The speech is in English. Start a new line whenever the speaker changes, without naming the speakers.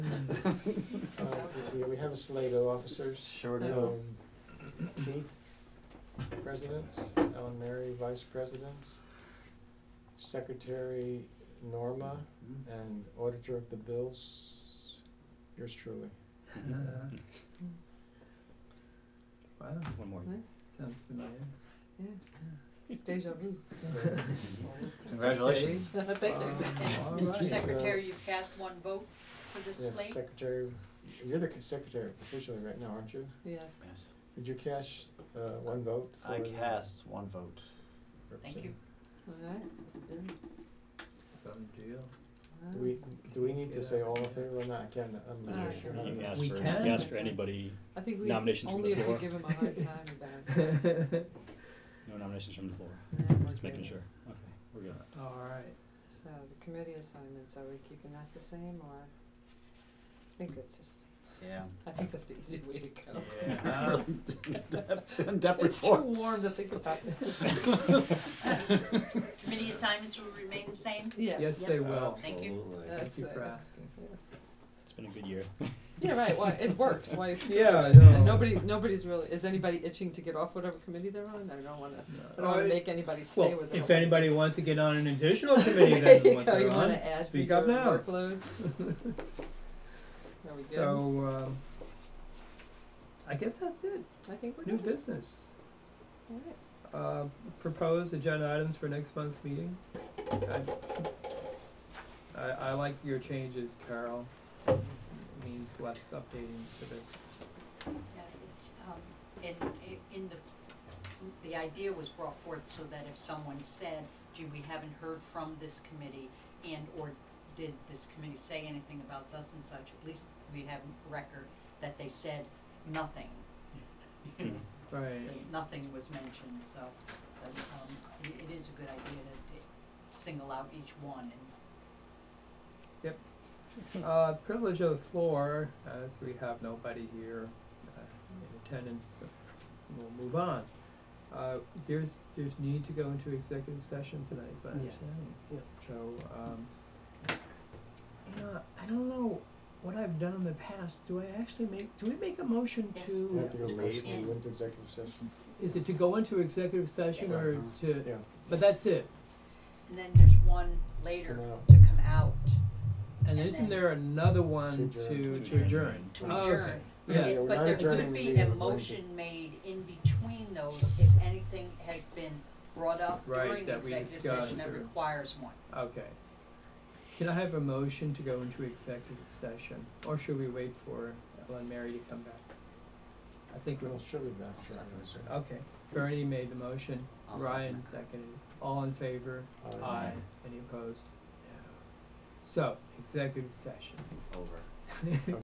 Uh, Yeah, we have a Sligo officers.
Sure
Oh,
do.
Um, Keith, president, Ellen Mary, vice president, secretary Norma, and auditor of the bills, yours truly.
Wow,
One more.
sounds familiar.
It's deja vu.
Congratulations.
Thank you. All
Mr.
right.
Secretary, you've cast one vote for this
Yes,
slate?
secretary, you're the secretary officially right now, aren't you?
Yes.
Yes.
Did you cast, uh, one vote?
I
for the
cast one vote.
Thank you.
All right. That's good.
Some deal.
Wow.
Do we, do we need to say all in favor or not? Again, I'm not
Alright.
sure.
You
You
Yeah.
asked
We
for, you
can.
asked for anybody,
I think we
Nominations from
only
the
if we
floor.
give him a hard time about it.
All
no nominations from the floor,
Yeah, we're
just making
good.
sure. Okay, we're good.
right.
So the committee assignments, are we keeping that the same or? I think that's just,
Yeah.
I think that's the easy way to go.
Yeah.
Dep
It's too warm to think about.
Committee assignments will remain the same?
Yes,
Yes.
they will.
Thank you.
Thank
That's
you for
it.
asking.
It's been a good year.
Yeah, right, well, it works, why it's
Yeah, I
good, and
know.
nobody, nobody's really, is anybody itching to get off whatever committee they're on? I don't wanna, I don't wanna make anybody stay
Uh, Well,
with it.
if anybody wants to get on an additional committee
There
that
you
what
go, you
they're
wanna
on,
add to
speak
your
up now.
workload? There we go,
So, um, I guess that's it,
I think we're
new
good,
business.
alright,
Uh, propose agenda items for next month's meeting. I, I, I like your changes, Carol. It Means less updating for this.
Yeah, it's, um, in, i- in the, the idea was brought forth so that if someone said, gee, we haven't heard from this committee and or did this committee say anything about thus and such, at least we have record that they said nothing. You
Hmm.
know,
Right.
that Nothing was mentioned, so, but, um, i- it is a good idea to, to single out each one and,
Uh, privilege of the floor, as we have nobody here uh, in attendance, so we'll move on. Uh, there's, there's need to go into executive session tonight, is my
Yes.
understanding.
Yes.
So, um, you know, I don't know what I've done in the past, do I actually make, do we make a motion
Yes.
to?
You have to go late,
Yes.
we went to executive session.
Is it to go into executive session
Yes.
or to,
Uh-huh. Yeah,
but that's it,
and then there's one later
Come out.
to come out,
and
And
isn't
then-
there another
To
one to,
adjourn.
to adjourn?
to
Oh,
adjourn.
okay. Yeah.
Yeah,
Yes,
we're
but
not
there could
adjourning the
be
meeting,
a
we're going
motion made in between those if anything has been brought up
Right,
during the
that we
executive session
discussed
that
or-
requires one.
Okay. Can I have a motion to go into executive session, or should we wait for Ellen Mary to come back? I think
Well,
we'll,
she'll be back shortly.
okay, Bernie made the motion, Ryan seconded, all in favor?
Aye.
Any opposed? No. So, executive session.
Over.